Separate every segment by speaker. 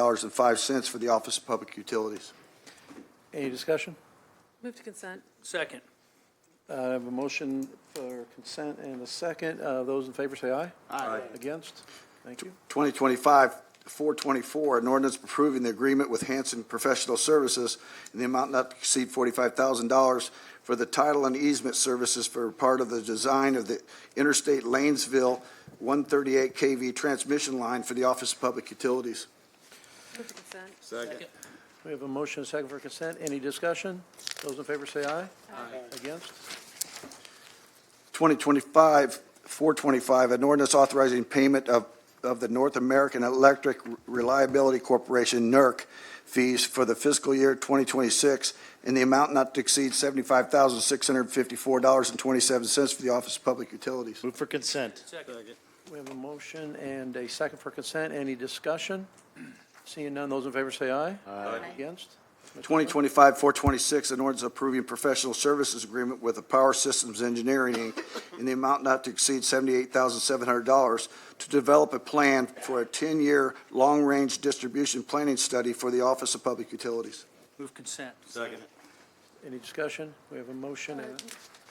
Speaker 1: $118.05 for the Office of Public Utilities.
Speaker 2: Any discussion?
Speaker 3: Move to consent.
Speaker 4: Second.
Speaker 2: Uh, I have a motion for consent and a second. Uh, Those in favor say aye.
Speaker 4: Aye.
Speaker 2: Against? Thank you.
Speaker 1: 2025-424, an ordinance approving the agreement with Hanson Professional Services in the amount not to exceed $45,000 for the title and easement services for part of the design of the Interstate Lanesville 138 KV transmission line for the Office of Public Utilities.
Speaker 3: Move to consent.
Speaker 4: Second.
Speaker 2: We have a motion and a second for consent. Any discussion? Those in favor say aye. Aye. Against?
Speaker 1: 2025-425, an ordinance authorizing payment of, of the North American Electric Reliability Corporation, NERC, fees for the fiscal year 2026 in the amount not to exceed $75,654.27 for the Office of Public Utilities.
Speaker 5: Move for consent.
Speaker 4: Second.
Speaker 2: We have a motion and a second for consent. Any discussion? Seeing none, those in favor say aye. Aye. Against?
Speaker 1: 2025-426, an ordinance approving professional services agreement with the Power Systems Engineering Inc. in the amount not to exceed $78,700 to develop a plan for a 10-year long-range distribution planning study for the Office of Public Utilities.
Speaker 4: Move consent. Second.
Speaker 2: Any discussion? We have a motion and,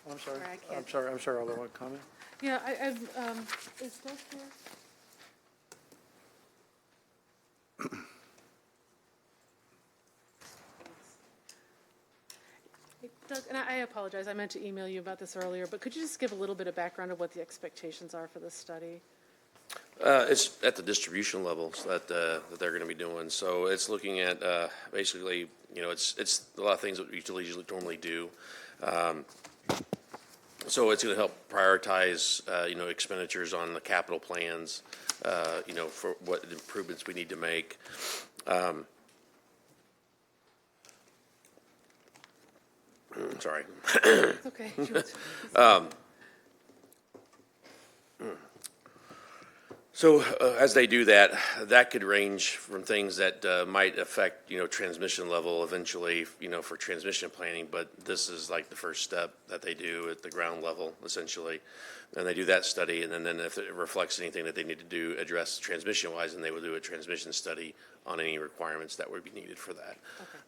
Speaker 2: a- I'm sorry,
Speaker 3: Uh, Sorry, I
Speaker 2: I'm
Speaker 3: can't-
Speaker 2: sorry, I'm sorry, Alderman, comment?
Speaker 3: Yeah, I, I, um, is Doug here? Hey, Doug, and I I apologize, I meant to email you about this earlier, but could you just give a little bit of background of what the expectations are for this study?
Speaker 6: Uh, It's at the distribution levels that, uh, that they're going to be doing. So it's looking at, uh, basically, you know, it's, it's a lot of things that utilities normally do. Um, So it's going to help prioritize, uh, you know, expenditures on the capital plans, uh, you know, for what improvements we need to make. Um, Sorry.
Speaker 3: It's okay. Do you want to-
Speaker 6: So uh, as they do that, that could range from things that uh, might affect, you know, transmission level eventually, you know, for transmission planning, but this is like the first step that they do at the ground level essentially. And they do that study, and then- then if it reflects anything that they need to do, address transmission-wise, then they will do a transmission study on any requirements that would be needed for that.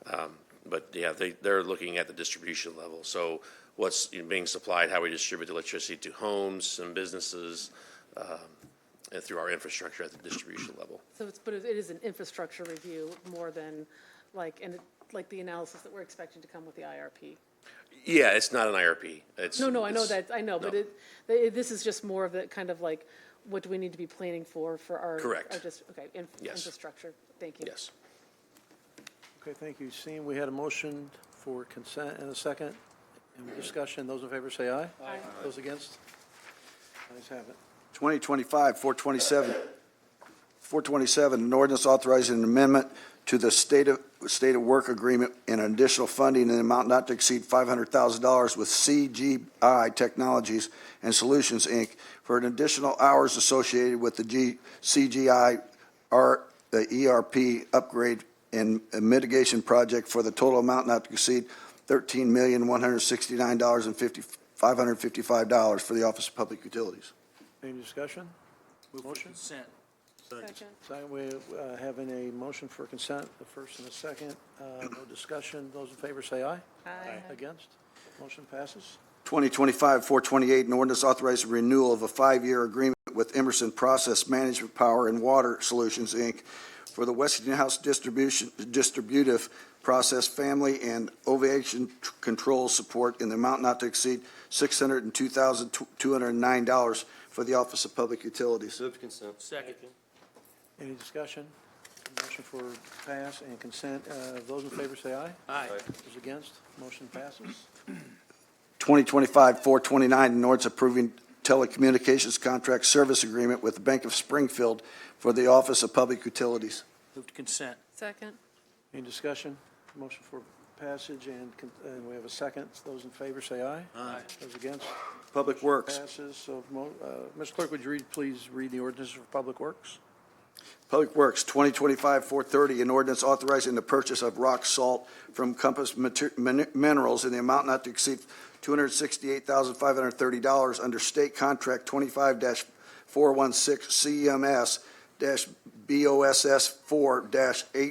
Speaker 6: Um, But yeah, they, they're looking at the distribution level. So what's being supplied, how we distribute electricity to homes and businesses, and uh, through our infrastructure at the distribution level.
Speaker 3: So it's, but it is an infrastructure review more than like, and like the analysis that we're expecting to come with the IRP.
Speaker 6: Yeah, it's not an IRP. It's.
Speaker 3: No, no, I know
Speaker 6: it's-
Speaker 3: that, I know, but
Speaker 6: no.
Speaker 3: it, they- this is just more of the kind of like, what do we need to be planning for, for our?
Speaker 6: Correct.
Speaker 3: Our just, okay, in-
Speaker 6: Yes.
Speaker 3: infrastructure, thank you.
Speaker 6: Yes.
Speaker 2: Okay, thank you. Seeing we had a motion for consent and a second, and discussion, those in favor say aye. Aye. Those against? Ayes have it.
Speaker 1: 2025, 427, 427, an ordinance authorizing an amendment to the state of, state of work agreement and additional funding in an amount not to exceed $500,000 with CGI Technologies and Solutions, Inc. for an additional hours associated with the G, CGI R, the ERP upgrade and mitigation project for the total amount not to exceed $13,169,555 for the Office of Public Utilities.
Speaker 2: Any discussion? Motion?
Speaker 4: Consent.
Speaker 3: Second.
Speaker 2: Second, we uh, have in a motion for consent, the first and the second. Uh, No discussion. Those in favor say aye.
Speaker 3: Aye.
Speaker 2: Against? Motion passes.
Speaker 1: 2025-428, an ordinance authorizing renewal of a five-year agreement with Emerson Process Management Power and Water Solutions, Inc. for the Westinghouse distribution, distributive process family and ovation tr- control support in the amount not to exceed $602,209 for the Office of Public Utilities.
Speaker 4: Second.
Speaker 2: Any discussion? Motion for pass and consent. Uh, Those in favor say aye.
Speaker 4: Aye.
Speaker 2: Those against? Motion passes.
Speaker 1: 2025-429, an ordinance approving telecommunications contract service agreement with the Bank of Springfield for the Office of Public Utilities.
Speaker 4: Move to consent.
Speaker 3: Second,
Speaker 2: Any discussion? Motion for passage and, con- and we have a second. Those in favor say aye.
Speaker 4: Aye.
Speaker 2: Those against?
Speaker 1: Public Works.
Speaker 2: Passes. So, mo- uh, Mr. Clerk, would you read, please read the ordinances for Public Works?
Speaker 1: Public Works, 2025-430, an ordinance authorizing the purchase of rock salt from Compass Mater- Min- Minerals in the amount not to exceed $268,530 under State Contract 25-416 CMS-BA BOSS four dash eight